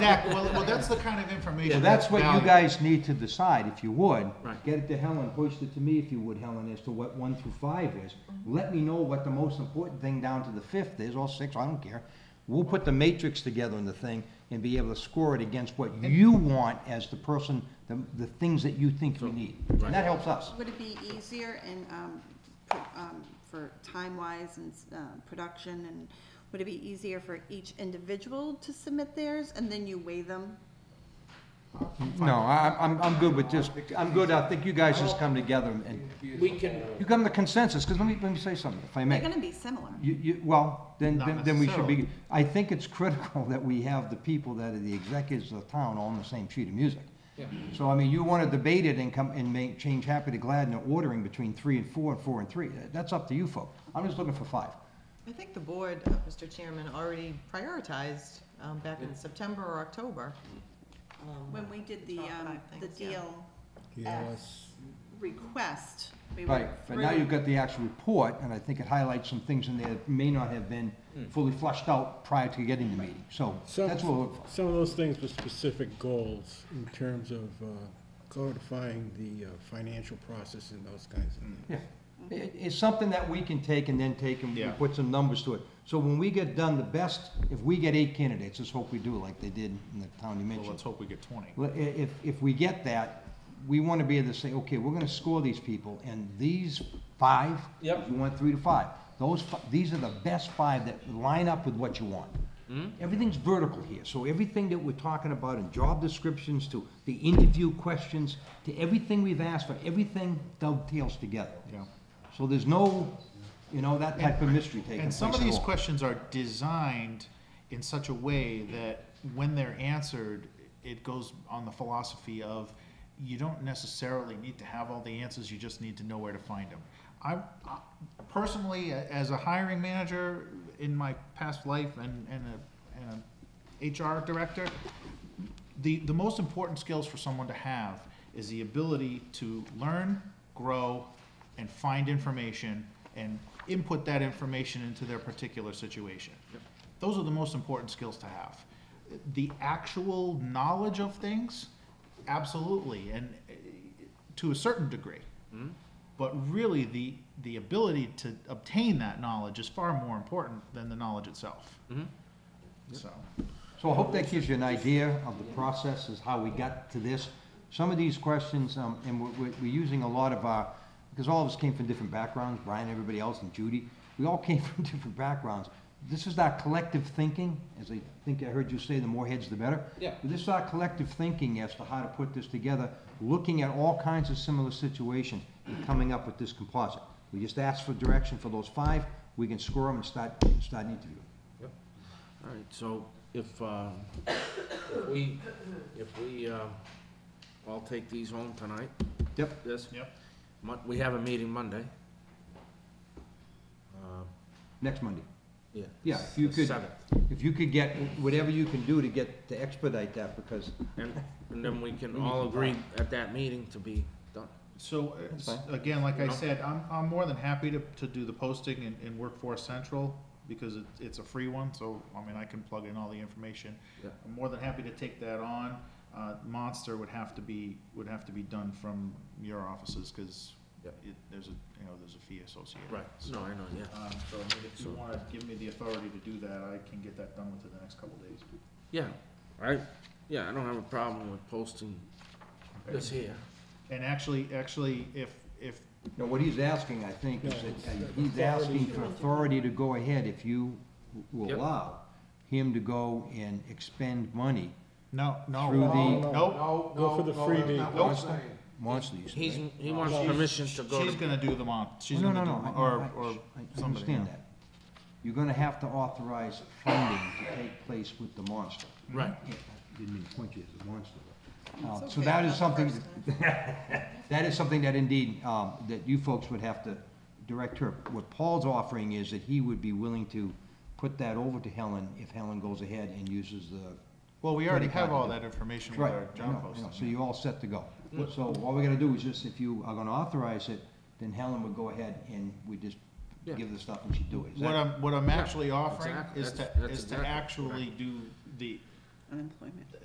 Exactly, well, well, that's the kind of information. Well, that's what you valuable. guys need to decide, if you would. Right. Get it to Helen, hoist it to me if you would, Helen, as to what one through five is. Let me know what the most important thing down to the fifth is, or six, I don't care. We'll put the matrix together in the thing and be able to score it against what you want as the person, the, the things that you think we need. And that helps us. Would it be easier and, um, pr- um, for time-wise and, uh, production and, would it be easier for each individual to submit theirs and then you weigh them? No, I, I'm, I'm good with just, I'm good, I think you guys just come together and, We can, you come to consensus, because let me, let me say something, if I may. They're gonna be similar. You, you, well, then, Not then, then we should be, necessarily. I think it's critical that we have the people that are the executives of the town all on the same sheet of music. Yeah. So, I mean, you wanna debate it and come, and make, change happy to glad in the ordering between three and four and four and three, that's up to you folk. I'm just looking for five. I think the board, uh, Mr. Chairman, already prioritized um, back in September or October. Um, When we did the, Top um, five the things, yeah. DLS request, we Right, went but now you've through, got the actual report, and I think it highlights some things in there that may not have been Hmm. fully flushed out prior to getting the meeting, so Some- that's what we're looking for. Some of those things with specific goals in terms of uh, codifying the uh, financial process and those kinds of things. Yeah, It- it's something that we can take and then take and we Mm-hmm. Yeah. put some numbers to it. So when we get done, the best, if we get eight candidates, let's hope we do like they did in the town you Well, let's mentioned. hope we get twenty. Well, i- If, if we get that, we want to be able to say, okay, we're going to score these people and these five. Yep. You want three to five. Those, fi- these are the best five that line up with what you want. Mm-hmm. Everything's vertical here, so everything that we're talking about in job descriptions to the interview questions, to everything we've asked for, everything dovetails together. Yeah. So there's no, you know, that type of mystery taking And place some of at these all. questions are designed in such a way that when they're answered, it goes on the philosophy of you don't necessarily need to have all the answers, you just need to know where to find them. I, I- personally, a- as a hiring manager in my past life and, and a, and a HR director, the, the most important skills for someone to have is the ability to learn, grow, and find information and input that information into their particular situation. Those are the most important skills to have. The actual knowledge of things, absolutely, and eh, to a certain degree. But really, the, the ability to obtain that knowledge is far more important than the knowledge itself. So, So I hope that gives you an idea of the process, is how we got to this. Some of these questions, um, and we're, we're- we're using a lot of our, because all of us came from different backgrounds, Brian, everybody else, and Judy, we all came from different backgrounds. This is our collective thinking, as I think I heard you say, the more heads, the better. Yeah. This is our collective thinking as to how to put this together, looking at all kinds of similar situations and coming up with this composite. We just asked for direction for those five, we can score them and start, start interviewing. all right, so if, uh, if we, if we, uh, all take these home tonight, Yep. this, yep, Mon- we have a meeting Monday. Uh, Next Monday. Yeah. Yeah, if you the could- Seventh, If you could get, whatever you can do to get, to expedite that, because, and, and then we can all agree at that meeting to be done. So, uh, That's s- fine. again, like I Yeah. said, I'm, I'm more than happy to, to do the posting in, in Workforce Central, because it, it's a free one, so, I mean, I can plug in all the information. Yeah. I'm more than happy to take that on, uh, Monster would have to be, would have to be done from your offices, cause Yep. it, there's a, you know, there's a fee associated. So, No, I know, yeah. Um, so, I mean, if you wanna give me the authority to do that, I can get that done within the next couple days. Yeah, I, yeah, I don't have a problem with posting this here. And actually, actually, if, if, you know, what he's asking, I think, is that, uh, he's asking for authority to go ahead, if you will Yep. allow him to go and expend money. no, no, Through the- nope, Go for the freebie. nope. Monster, you said, He's, right? he wants She's- permission to go She's to, gonna do the month, she's No, gonna no, do, no, mon- I- or, I- or I- I somebody. understand that. You're gonna have to authorize funding to take place with the monster. right, Yeah, I Didn't mean to point you as a monster. but, uh, It's So okay, that not is the something, first that is something that indeed, um, that you folks would have to direct her. What Paul's offering is that he would be willing to put that over to Helen if Helen goes ahead and uses the. Well, we already Credit have card. all that information with Right, our I know, job I know. So posting. Mm-hmm. you're all set to go. So all we gotta do is just, if you are gonna authorize it, then Helen would go ahead and we just Yeah. give the stuff and she'd do it. Is What that- I'm, what I'm actually offering exactly, is to, that's- that's is to exactly actually do the, unemployment.